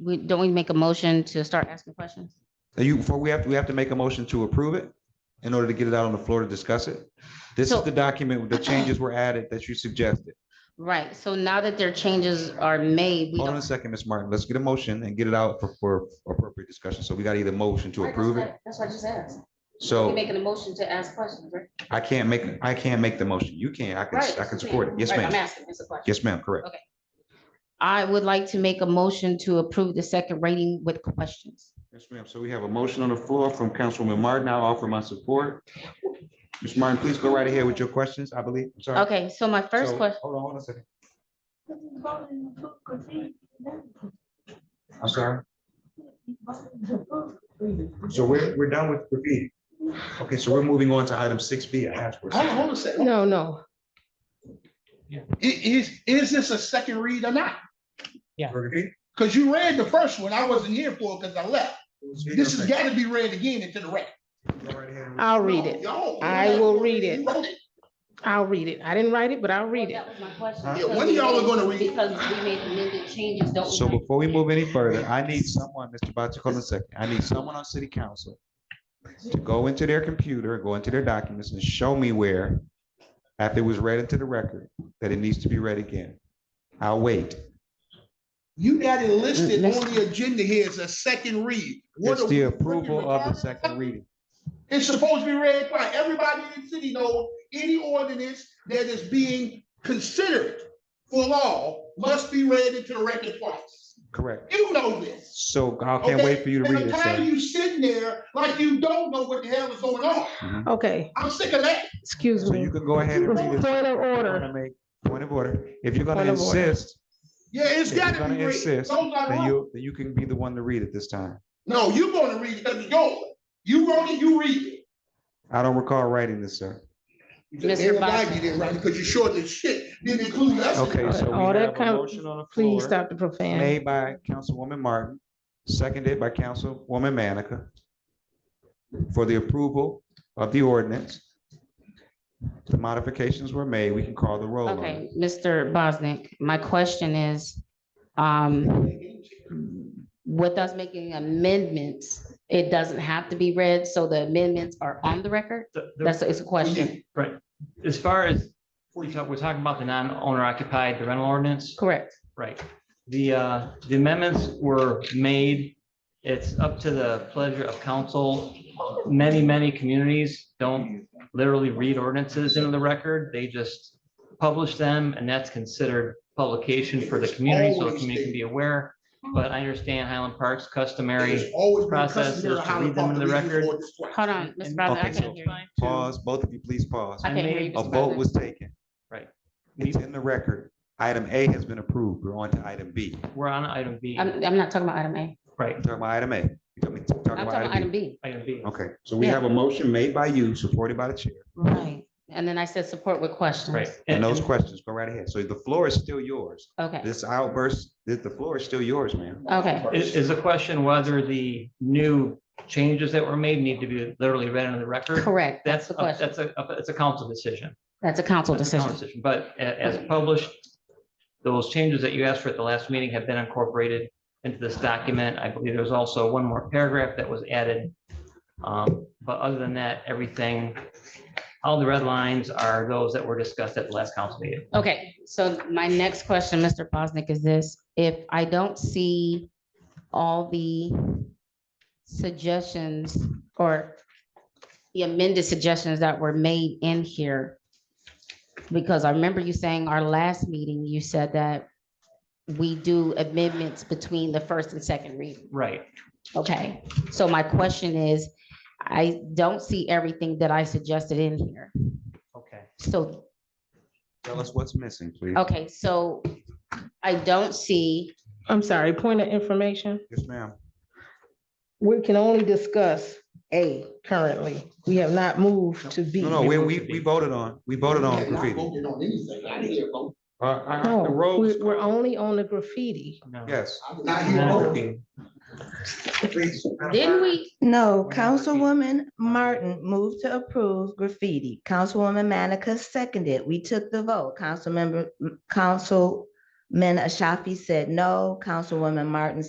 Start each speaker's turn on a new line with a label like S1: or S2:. S1: we, don't we make a motion to start asking questions?
S2: Now you, before we have, to we have to make a motion to approve it in order to get it out on the floor to discuss it. This is
S1: So-
S2: the document, with the changes were added that you suggested.
S1: Right, so now that their changes are made, we
S2: Hold on a
S1: don't,
S2: second, Ms. Martin. Let's get a motion and get it out for, for appropriate discussion. So we got either motion to approve it.
S1: That's what I just asked. We're
S2: So
S1: making a motion to ask questions, right?
S2: I can't make, I can't make the motion. You can, I can,
S1: Right.
S2: I can support it. Yes,
S1: Right, I'm
S2: ma'am.
S1: asking, it's a question.
S2: Yes, ma'am, correct.
S1: I would like to make a motion to approve the second reading with questions.
S2: Yes, ma'am. So we have a motion on the floor from Councilwoman Martin. I'll offer my support. Ms. Martin, please go right ahead with your questions, I believe. I'm sorry.
S1: Okay, so my first
S2: So-
S1: question,
S2: Hold on, hold on a second. I'm sorry. So we're, we're done with graffiti. Okay, so we're moving on to item six B, a hash
S3: Hold on, hold on a second.
S4: No, no.
S3: I- Is, is this a second read or not?
S2: Oh, This
S3: Because you read the first one. I wasn't here for it because I left. This has got to be read again into the record.
S4: I'll read it.
S3: No, y'all-
S4: I will read it.
S3: You wrote it.
S4: I'll read it. I didn't write it, but I'll read it.
S1: That was my question.
S2: Huh?
S3: Yeah, when y'all are gonna read it?
S1: Because we made amended changes, don't.
S2: So before we move any further, I need someone, Mr. Bachi, hold on a second. I need someone on city council to go into their computer, go into their documents and show me where, after it was read into the record, that it needs to be read again. I'll wait.
S3: You got it listed
S1: Let's-
S3: on the agenda here as a second read. What
S2: It's
S3: are
S2: the
S3: we
S2: approval
S3: reading?
S2: of the second reading.
S3: It's supposed to be read by everybody in the city knows any ordinance that is being considered for law must be read into the record twice.
S2: Correct.
S3: You know this.
S2: So I can't wait for you to
S3: Okay,
S2: read it,
S3: And I'm tired of
S2: sir.
S3: you sitting there like you don't know what the hell is going on.
S4: Okay,
S3: I'm sick of that.
S4: excuse
S2: So you
S4: me.
S2: can go ahead and
S4: Point
S2: read it.
S4: of order.
S2: Wanna make- Point of order. If you're gonna
S4: Point of order.
S2: insist,
S3: Yeah, it's
S2: If you're
S3: gotta
S2: gonna
S3: be read.
S2: insist,
S3: Don't lie
S2: then
S3: wrong.
S2: you, then you can be the one to read it this time.
S3: No, you're gonna read it because it's yours. You wrote it, you read it.
S2: I don't recall writing this, sir.
S1: Mr.
S3: Everybody
S1: Boswell.
S3: did right because you short as shit. Didn't include us. in
S2: Okay,
S3: it.
S2: so we
S4: All that
S2: have a
S4: kind-
S2: motion on the
S4: Please
S2: floor
S4: stop the profanity.
S2: made by Councilwoman Martin, seconded by Councilwoman Manica for the approval of the ordinance. The modifications were made. We can call the roll on it.
S1: Okay, Mr. Bosnick, my question is, um, with us making amendments, it doesn't have to be read, so the amendments are on the record?
S5: The- the-
S1: That's, it's a question.
S5: Right, as far as, we talk- we're talking about the non-owner occupied, the rental ordinance,
S1: Correct.
S5: right? The, uh, the amendments were made, it's up to the pleasure of council. Many, many communities don't literally read ordinances into the record, they just publish them, and that's considered publication for the community, so the community can be aware. But I understand Highland Park's customary,
S3: It's always been
S5: process is
S3: customary
S5: to
S3: how
S5: read them
S3: talk
S5: in
S3: to
S5: the
S3: read
S5: record.
S3: before this twice.
S1: Hold on, Mr.
S5: And-
S1: Bosnick, I
S2: Okay,
S1: can't
S2: so-
S1: hear you.
S2: Pause, both of you, please pause.
S1: I can't hear you.
S2: A
S1: Mr.
S2: vote
S1: Bosnick.
S2: was taken.
S5: right,
S2: It's in the record. Item A has been approved. We're on to item B.
S5: we're on item B,
S1: I'm, I'm not talking about item A.
S5: right,
S2: Talking about item A. You talking-
S1: I'm
S2: talking about
S1: talking about item
S2: item B.
S1: B.
S5: item B.
S2: Okay, so we
S1: Yeah.
S2: have a motion made by you, supported by the chair.
S1: Right. And then I said support with questions.
S5: Right.
S2: And those questions, go right ahead. So the floor is still yours.
S1: Okay,
S2: This outburst, the, the floor is still yours, ma'am.
S1: okay.
S5: Is, is the question whether the new changes that were made need to be literally read into the record?
S1: Correct. That's
S5: That's,
S1: the
S5: a-
S1: question.
S5: that's a, a- it's a council decision.
S1: That's a council
S5: That's a council
S1: decision.
S5: decision. But a- as published, those changes that you asked for at the last meeting have been incorporated into this document. I believe there's also one more paragraph that was added. Um, But other than that, everything, all the red lines are those that were discussed at the last council meeting.
S1: Okay, so my next question, Mr. Bosnick, is this, if I don't see all the suggestions or the amended suggestions that were made in here, because I remember you saying our last meeting, you said that we do amendments between the first and second reading.
S5: Right.
S1: Okay, so my question is, I don't see everything that I suggested in here.
S5: Okay.
S1: So
S2: Tell us what's missing, please.
S1: Okay, so I don't see,
S4: I'm sorry, point of information.
S2: Yes, ma'am.
S4: We can only discuss A currently. We have not moved to B.
S2: No, no, we, we, we voted on, we voted on
S3: Not
S2: graffiti.
S3: voting on anything. I didn't hear a vote.
S2: Uh, uh,
S1: Oh,
S4: No,
S2: the roll was
S4: we're, we're only on the graffiti.
S5: No.
S2: Yes.
S3: I did not hear a vote.
S5: No.
S3: Please.
S1: didn't we,
S6: No,
S5: We're not repeating.
S6: Oh, Councilwoman Martin moved to approve graffiti. Councilwoman Manica seconded. We took the vote. Councilmember, Councilman Ashafi said no. Councilwoman Martin